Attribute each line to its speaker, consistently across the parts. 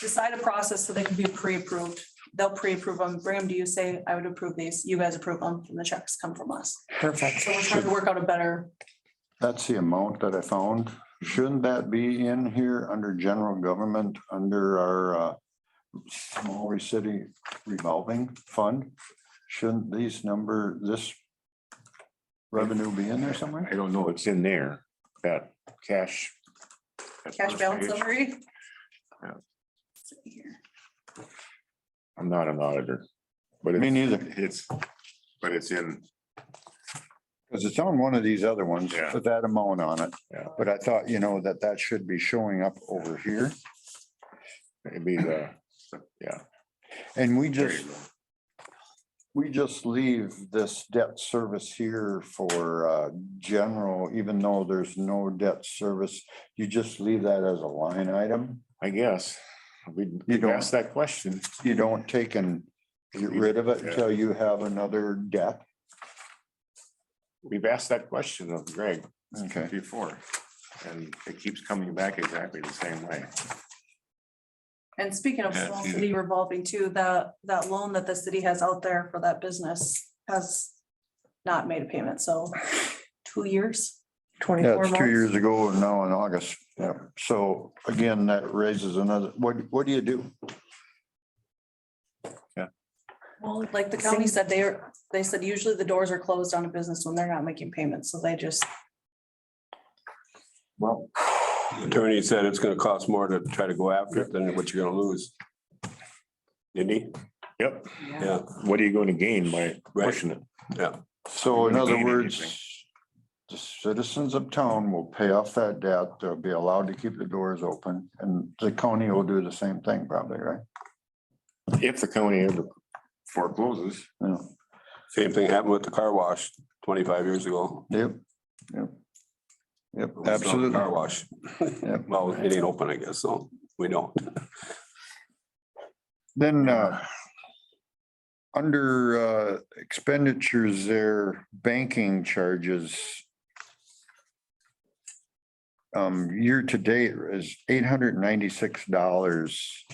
Speaker 1: decide a process so they can be pre-approved. They'll pre-approve them, bring them to you, say, I would approve these, you guys approve them, and the checks come from us.
Speaker 2: Perfect.
Speaker 1: So we're trying to work out a better,
Speaker 3: That's the amount that I found. Shouldn't that be in here under general government, under our uh, Maori City revolving fund? Shouldn't these number, this revenue be in there somewhere?
Speaker 4: I don't know, it's in there, that cash. that
Speaker 1: cash
Speaker 4: first
Speaker 1: balance
Speaker 4: page.
Speaker 1: summary.
Speaker 4: Yeah.
Speaker 1: Let's see here.
Speaker 4: I'm not an auditor. But
Speaker 3: Me
Speaker 4: it's-
Speaker 3: neither.
Speaker 4: it's, but it's in,
Speaker 3: Because it's on one of these other ones
Speaker 4: Yeah.
Speaker 3: with that amount on it.
Speaker 4: Yeah.
Speaker 3: But I thought, you know, that that should be showing up over here.
Speaker 4: it'd be the,
Speaker 3: And we
Speaker 4: there you
Speaker 3: just,
Speaker 4: go.
Speaker 3: we just leave this debt service here for uh, general, even though there's no debt service. You just leave that as a line item.
Speaker 4: I guess, we
Speaker 3: You don't-
Speaker 4: asked that question.
Speaker 3: You don't take and get rid of it until you have another debt.
Speaker 4: We've asked that question of Greg
Speaker 3: Okay.
Speaker 4: before, and it keeps coming back exactly the same way.
Speaker 1: And speaking of
Speaker 4: Yeah,
Speaker 1: small
Speaker 4: yeah.
Speaker 1: city revolving too, that, that loan that the city has out there for that business has not made a payment, so two years.
Speaker 3: Yeah,
Speaker 2: Twenty-four
Speaker 3: it's two
Speaker 2: months.
Speaker 3: years ago and now in August. Yeah. So again, that raises another, what, what do you do?
Speaker 1: Well, like the county said, they are, they said usually the doors are closed on a business when they're not making payments, so they just,
Speaker 4: Well,
Speaker 5: Attorney said it's gonna cost more to try to go after it than what you're gonna lose. Didn't he?
Speaker 4: yep,
Speaker 5: Yeah,
Speaker 4: what are you going to gain by
Speaker 5: Right.
Speaker 4: pushing it?
Speaker 3: So
Speaker 4: You're
Speaker 3: in
Speaker 4: not
Speaker 3: other
Speaker 4: gaining
Speaker 3: words,
Speaker 4: anything.
Speaker 3: the citizens of town will pay off that debt. They'll be allowed to keep the doors open and the county will do the same thing probably, right?
Speaker 4: If the county ever forecloses.
Speaker 3: Yeah.
Speaker 5: same thing happened with the car wash twenty-five years ago.
Speaker 3: Yep, yep. Yep,
Speaker 5: It was still a
Speaker 3: absolutely.
Speaker 5: Car wash.
Speaker 3: Yep.
Speaker 5: Well, it ain't open, I guess, so we don't.
Speaker 3: Then, uh, under, uh, expenditures there, banking charges. Um, year to date is eight hundred ninety-six dollars.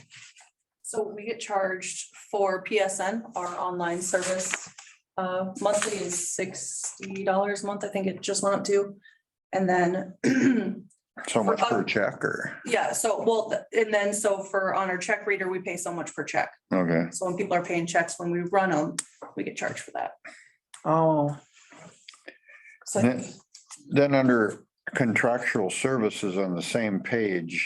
Speaker 1: so we get charged for PSN, our online service. Uh, monthly is sixty dollars a month, I think it just went up to. And then
Speaker 3: So much
Speaker 1: For-
Speaker 3: per check or,
Speaker 1: Yeah, so, well, th- and then so for on our check reader, we pay so much per check.
Speaker 3: okay.
Speaker 1: So when people are paying checks, when we run them, we get charged for that.
Speaker 2: Oh,
Speaker 1: So I
Speaker 3: Then-
Speaker 1: think
Speaker 3: Then under contractual services on the same page,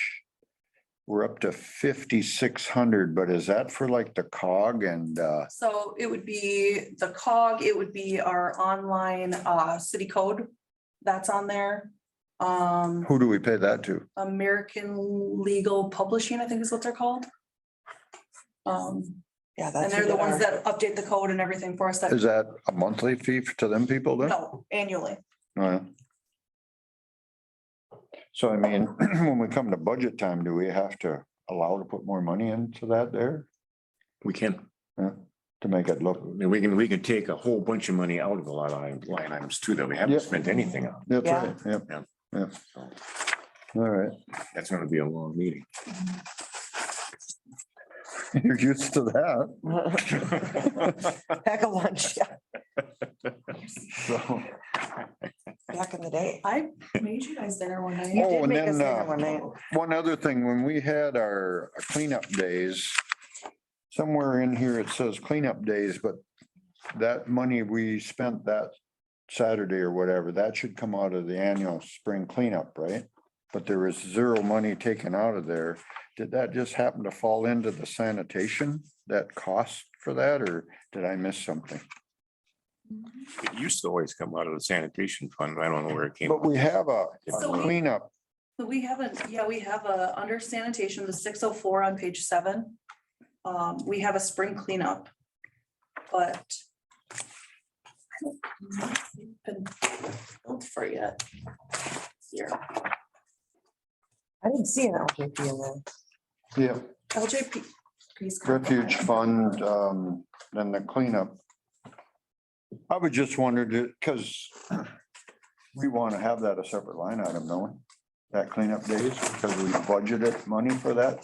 Speaker 3: we're up to fifty-six hundred, but is that for like the cog and, uh,
Speaker 1: So it would be the cog, it would be our online uh city code that's on there. Um,
Speaker 3: who do we pay that to?
Speaker 1: American Legal Publishing, I think is what they're called. Um,
Speaker 2: yeah,
Speaker 1: and
Speaker 2: that's.
Speaker 1: they're
Speaker 2: who
Speaker 1: the
Speaker 2: did
Speaker 1: ones
Speaker 2: our-
Speaker 1: that update the code and everything for us that,
Speaker 3: Is that a monthly fee to them people then? Oh,
Speaker 1: no, annually.
Speaker 3: Yeah. So I mean, when we come to budget time, do we have to allow to put more money into that there
Speaker 4: We can,
Speaker 3: to make it
Speaker 4: I
Speaker 3: look?
Speaker 4: mean, we can, we can take a whole bunch of money out of a lot of line line items too that we haven't
Speaker 3: Yep.
Speaker 4: spent anything on.
Speaker 3: That's
Speaker 2: Yeah.
Speaker 3: right, yep,
Speaker 4: Yeah.
Speaker 3: yep.
Speaker 4: So
Speaker 3: All right,
Speaker 4: That's gonna be a long meeting.
Speaker 3: you're used to that.
Speaker 2: Pack a lunch, yeah,
Speaker 3: So,
Speaker 2: back in the day.
Speaker 1: I made you guys dinner one night.
Speaker 2: You
Speaker 3: Oh,
Speaker 2: did
Speaker 3: and
Speaker 2: make
Speaker 3: then,
Speaker 2: us dinner
Speaker 3: uh,
Speaker 2: one night.
Speaker 3: one other thing, when we had our cleanup days, somewhere in here it says cleanup days, but that money we spent that Saturday or whatever, that should come out of the annual spring cleanup, right? But there was zero money taken out of there. Did that just happen to fall into the sanitation, that cost for that, or did I miss something?
Speaker 4: It used to always come out of the sanitation fund. I don't know where it came.
Speaker 3: But we have a a
Speaker 1: So we-
Speaker 3: cleanup,
Speaker 1: So We haven't, yeah, we have a, under sanitation, the six oh four on page seven. Um, we have a spring cleanup, but. I don't been billed for yet. Here,
Speaker 2: I didn't see an LJP in there.
Speaker 3: yeah,
Speaker 1: LJP. please come back.
Speaker 3: refuge fund, um, then the cleanup. I was just wondering, because we want to have that a separate line item, don't we? That cleanup days, because we budgeted money for that